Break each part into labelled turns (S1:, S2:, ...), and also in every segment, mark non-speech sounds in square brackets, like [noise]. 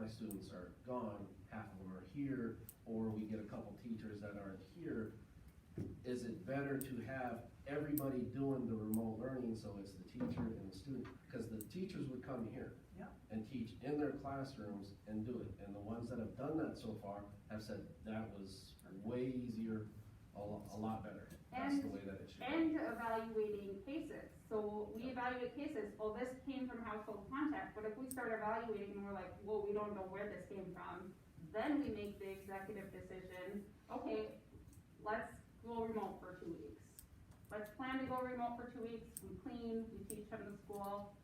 S1: my students are gone, half of them are here, or we get a couple teachers that aren't here, is it better to have everybody doing the remote learning, so it's the teacher and the student? Because the teachers would come here.
S2: Yeah.
S1: And teach in their classrooms and do it, and the ones that have done that so far have said that was way easier, a lo- a lot better. That's the
S3: And-
S1: way that it should be.
S3: and evaluating cases. So we evaluate cases, well, this came from household contact, but if we start evaluating and we're like, well, we don't know where this came from, then we make the executive decision, okay, let's go remote for two weeks. Let's plan to go remote for two weeks, we clean, we teach them in school,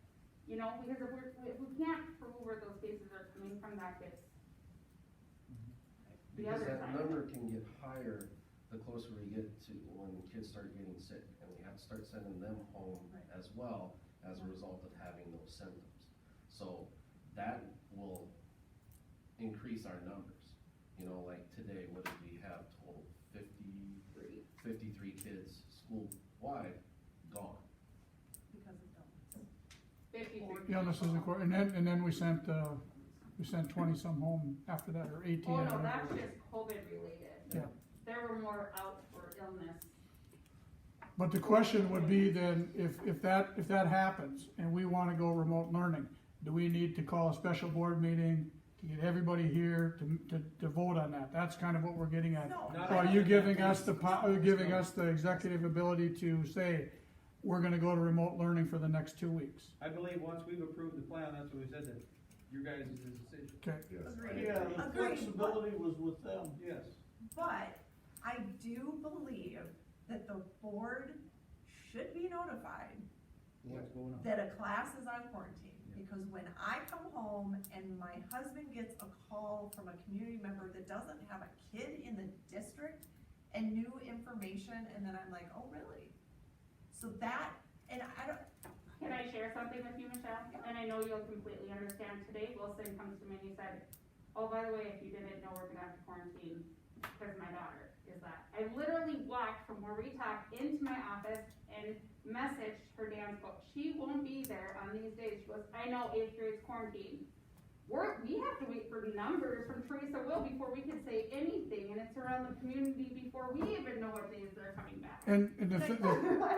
S3: you know, because if we're, if we can't prove where those cases are coming from, that gets, the
S1: Because
S3: other
S1: that
S3: side.
S1: number can get higher the closer we get to when kids start getting sick, and we have to start sending them home
S2: Right.
S1: as well as a result of having those symptoms. So that will increase our numbers. You know, like today, what did we have total? Fifty,
S3: three.
S1: fifty-three kids school-wide gone.
S2: because of donuts.
S3: Fifty-three. Oh,
S4: Yeah, this is the, que- and then, and then we sent, uh, we sent twenty some home after that, or eighteen.
S3: Oh,
S4: I
S3: no,
S4: don't know.
S3: that's just COVID related.
S4: Yeah.
S3: There were more out for illness.
S4: But the question would be then, if, if that, if that happens, and we wanna go remote learning, do we need to call a special board meeting to get everybody here to, to, to vote on that? That's kind of what we're getting at.
S2: No.
S4: So Are you giving us the, po- are you giving us the executive ability to say, we're gonna go to remote learning for the next two weeks?
S5: I believe once we've approved the plan, that's what we said, that your guys' is the decision,
S4: Okay,
S6: Yeah, the
S2: Agreed.
S6: flexibility was with them.
S5: yes.
S2: But I do believe that the board should be notified
S5: What's going on?
S2: that a class is on quarantine. Because when I come home and my husband gets a call from a community member that doesn't have a kid in the district and new information, and then I'm like, oh, really? So that, and I don't,
S3: Can I share something with you, Michelle? And I know you'll completely understand. Today Wilson comes to me and he said, oh, by the way, if you didn't know, we're gonna have to quarantine because my daughter is that. I literally walked from where we talk into my office and messaged her damn book. She won't be there on these days. She goes, I know eighth grade's quarantine. We're, we have to wait for numbers from Teresa Will before we can say anything and it's around the community before we even know what days they're coming back. [laughs]
S4: and, and the, thi- the,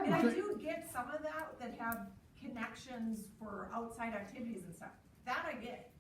S2: And I
S4: Okay.
S2: do get some of that that have connections for outside activities and stuff. That I get.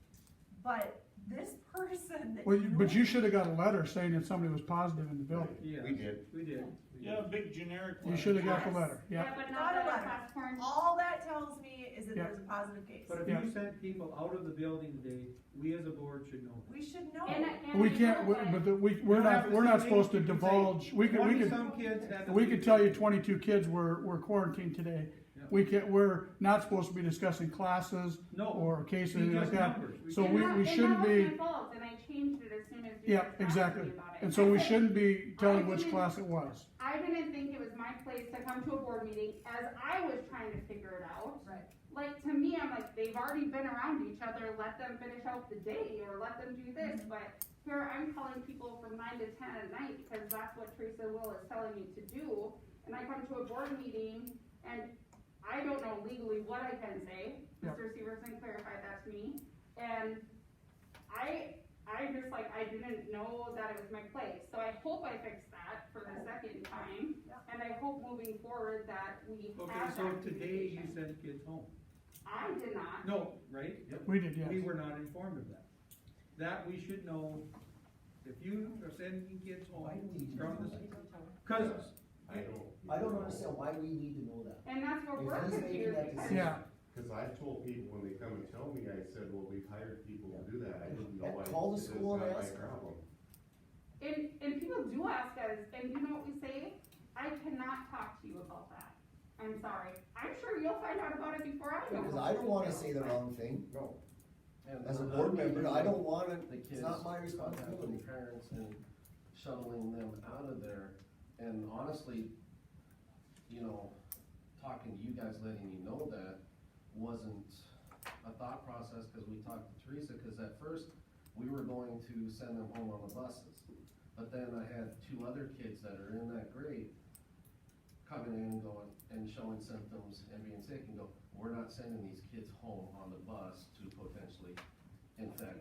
S2: But this [laughs] person that.
S4: well, you- but you should have got a letter saying that somebody was positive in the building.
S5: Yeah.
S7: We did.
S5: We did. We
S6: Yeah,
S5: did.
S6: big generic.
S4: You should have got the letter, yeah.
S3: but
S2: Not
S3: not
S2: a
S3: that
S2: letter.
S3: it's past quarantine.
S2: All that tells me is that
S4: Yeah.
S2: there's a positive case.
S5: But if
S4: Yeah.
S5: you sent people out of the building today, we as a board should know.
S2: We should know.
S3: And I- and
S4: Oh. We
S3: I
S4: can't,
S3: know
S4: we-
S3: that-
S4: but the- we, we're not, we're not supposed to divulge, we could, we could,
S5: Twenty-some kids had. to
S4: we
S5: be-
S4: could tell you twenty-two kids were, were quarantined today.
S5: Yeah.
S4: We can't, we're not supposed to be discussing classes
S5: No,
S4: or cases,
S5: we
S4: anything like
S5: just
S4: that.
S5: numbers.
S4: So
S3: And
S4: we,
S3: that-
S4: we
S3: and that
S4: shouldn't
S3: was
S4: be,
S3: my fault, And I changed it as soon as you.
S4: yeah,
S3: guys asked me
S4: exactly,
S3: about it.
S4: and so we
S3: That's it.
S4: shouldn't be telling
S3: I
S4: which
S3: didn't-
S4: class it was.
S3: I didn't think it was my place to come to a board meeting as I was trying to figure it out.
S2: Right.
S3: Like, to me, I'm like, they've already been around each other, let them finish out the day or let them do this, but here I'm calling people from nine to ten at night because that's what Teresa Will is telling me to do. And I come to a board meeting and I don't know legally what I can say.
S4: Yeah.
S3: Mr. Severson clarified that to me. And I, I just like, I didn't know that it was my place, so I hope I fixed that for the second time.
S2: Yeah.
S3: And I hope moving forward that we
S5: Okay,
S3: have
S5: so
S3: that
S5: today you
S3: communication.
S5: sent kids home.
S3: I did not.
S5: No, right?
S4: We did,
S5: We
S4: yes.
S5: were not informed of that. That we should know, if you are sending kids
S8: Why do
S5: home
S8: we need to
S5: from
S8: know
S5: the,
S8: that?
S5: cause
S7: I don't.
S8: I don't understand why we need to know that.
S3: And that's what
S8: If
S3: we're
S8: he's making
S3: confused
S8: that
S3: because.
S8: decision-
S4: Yeah,
S7: Cause I've told people when they come and tell me, I said, well, we've hired people to do that, I didn't know. I-
S8: Call the
S7: it's
S8: school and
S7: not my
S8: ask them.
S7: problem.
S3: And, and people do ask us, and you know what we say? I cannot talk to you about that. I'm sorry. I'm sure you'll find out about it before I know.
S8: Because I don't wanna say the wrong thing,
S7: No,
S1: And
S8: as a
S1: another
S8: board member,
S1: meeting-
S8: I don't wanna,
S1: the kids.
S8: it's not my
S1: contacting
S8: responsibility.
S1: the Parents and shuttling them out of there, and honestly, you know, talking to you guys, letting you know that wasn't a thought process, cause we talked to Teresa, cause at first, we were going to send them home on the buses. But then I had two other kids that are in that grade coming in and going, and showing symptoms and being sick and go, we're not sending these kids home on the bus to potentially infect